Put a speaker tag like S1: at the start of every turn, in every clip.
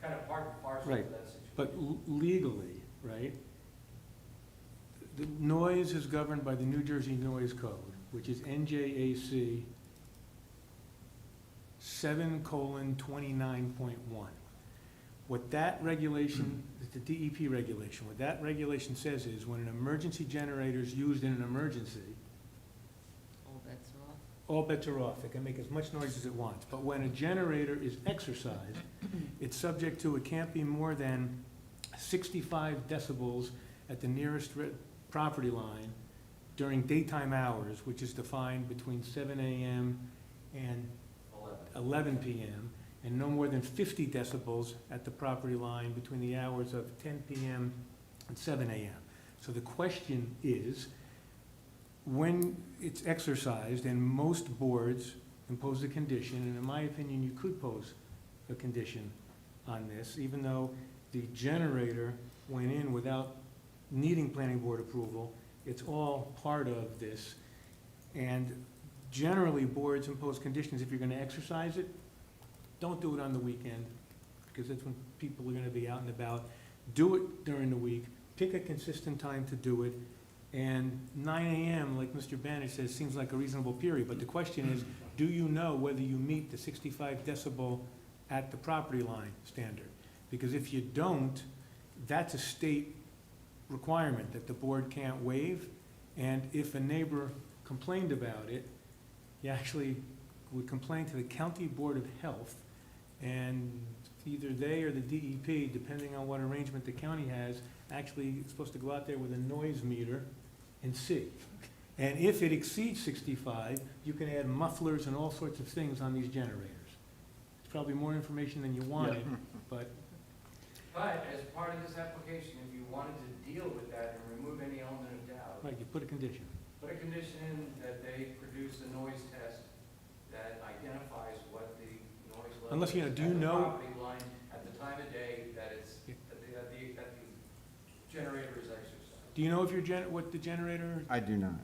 S1: kind of part and parcel to
S2: Right,
S1: that situation.
S2: But l- legally, right? The noise is governed by the New Jersey Noise Code, which is NJAC seven colon twenty-nine point one. What that regulation, the DEP regulation, what that regulation says is when an emergency generator is used in an emergency,
S3: All bets are off.
S2: all bets are off, it can make as much noise as it wants, but when a generator is exercised, it's subject to, it can't be more than sixty-five decibels at the nearest re- property line during daytime hours, which is defined between seven AM and
S1: Eleven.
S2: eleven PM, and no more than fifty decibels at the property line between the hours of ten PM and seven AM. So the question is, when it's exercised, and most boards impose a condition, and in my opinion, you could pose a condition on this, even though the generator went in without needing planning board approval, it's all part of this. And generally, boards impose conditions, if you're gonna exercise it, don't do it on the weekend, because that's when people are gonna be out and about. Do it during the week, pick a consistent time to do it, and nine AM, like Mr. Banish says, seems like a reasonable period, but the question is, do you know whether you meet the sixty-five decibel at the property line standard? Because if you don't, that's a state requirement that the board can't waive, and if a neighbor complained about it, you actually would complain to the county board of health, and either they or the DEP, depending on what arrangement the county has, actually is supposed to go out there with a noise meter and see. And if it exceeds sixty-five, you can add mufflers and all sorts of things on these generators. It's probably more information than you wanted, but
S1: But as part of this application, if you wanted to deal with that and remove any element of doubt,
S2: Right, you put a condition.
S1: put a condition in that they produce a noise test that identifies what the noise level
S2: Unless, you know,
S1: is
S2: do you
S1: at the
S2: know-
S1: property line at the time of day that it's,
S2: Yeah.
S1: that the, that the, that the generator is exercised.
S2: Do you know if your gen, what the generator,
S4: I do not.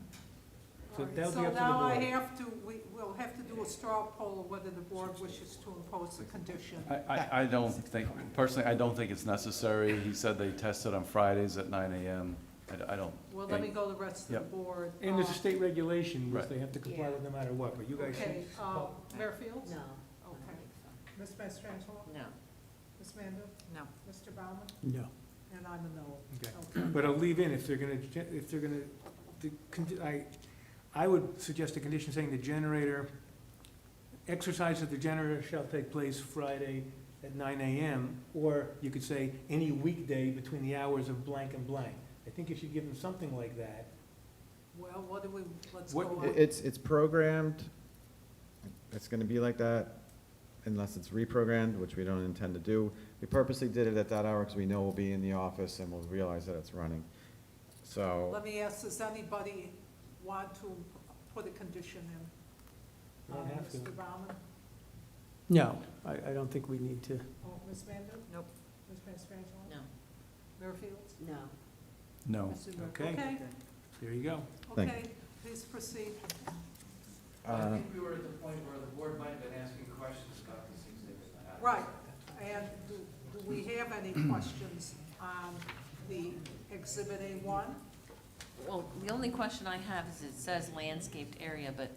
S2: So
S5: All right,
S2: that'll be up to the
S5: So now I
S2: board.
S5: have to, we, we'll have to do a straw poll whether the board wishes to impose a condition.
S6: I, I, I don't think, personally, I don't think it's necessary. He said they tested on Fridays at nine AM. I, d- I don't.
S5: Well, let me
S6: think-
S5: go the rest of the
S6: Yep.
S5: board.
S2: and there's a
S5: Uh,
S2: state regulation, which
S6: Right.
S2: they have to comply with no matter what, but you guys.
S5: Okay, uh, Mayor Fields?
S3: No.
S5: Okay.
S7: Ms. Mastrangelo?
S3: No.
S7: Ms. Mando?
S3: No.
S7: Mr. Bauman?
S2: No.
S7: And I'm a no.
S2: Okay.
S7: Okay.
S2: But I'll leave in, if they're gonna, gen- if they're gonna, the, con- I, I would suggest a condition saying the generator, exercise of the generator shall take place Friday at nine AM, or you could say any weekday between the hours of blank and blank. I think if you give them something like that,
S5: Well, what do we, let's go
S2: What-
S5: on.
S4: I- It's, it's programmed, it's gonna be like that unless it's reprogrammed, which we don't intend to do. We purposely did it at that hour because we know we'll be in the office and we'll realize that it's running. So,
S5: Let me ask, does anybody want to put a condition in?
S2: you don't
S5: Uh,
S2: have to.
S5: Mr. Bauman?
S8: No, I, I don't think we need to.
S7: Oh, Ms. Mando?
S3: Nope.
S7: Ms. Mastrangelo?
S3: No.
S5: Mayor Fields?
S3: No.
S6: No.
S5: Mr. Mur-
S2: Okay.
S5: Okay,
S2: There you go.
S4: Thank
S5: okay, please proceed.
S1: I
S4: uh,
S1: think we were at the point where the board might have been asking questions about this exhibit.
S5: Right, and do, do we have any questions on the Exhibit A1?
S3: Well, the only question I have is it says landscaped area, but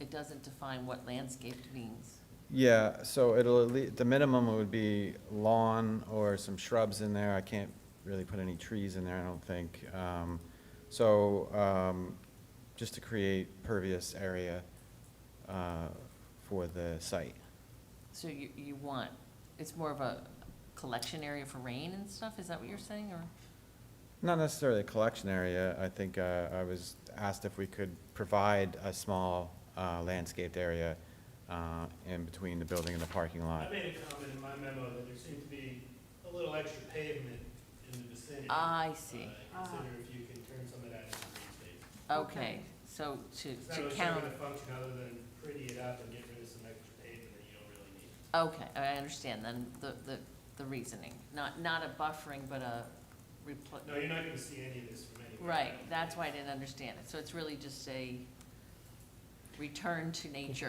S3: it doesn't define what landscaped means.
S4: yeah, so it'll, at lea- the minimum would be lawn or some shrubs in there. I can't really put any trees in there, I don't think. Um, So, um, just to create pervious area uh, for the site.
S3: So you, you want, it's more of a collection area for rain and stuff? Is that what you're saying, or?
S4: Not necessarily a collection area. I think uh, I was asked if we could provide a small uh, landscaped area uh, in between the building and the parking
S9: I
S4: lot.
S9: made a comment in my memo that there seemed to be a little extra pavement in the vicinity.
S3: Ah,
S9: Uh,
S3: I see.
S9: I Consider if you can turn some of that into green space.
S3: Okay, so to,
S9: It's not
S3: to
S9: really
S3: count,
S9: serving a function other than pretty it up and get rid of some extra pavement that you don't really need.
S3: okay, I understand then the, the, the reasoning. Not, not a buffering, but a repl-
S9: No, you're not gonna see any of this from anywhere.
S3: Right, that's why I didn't understand it. So it's really just a return to nature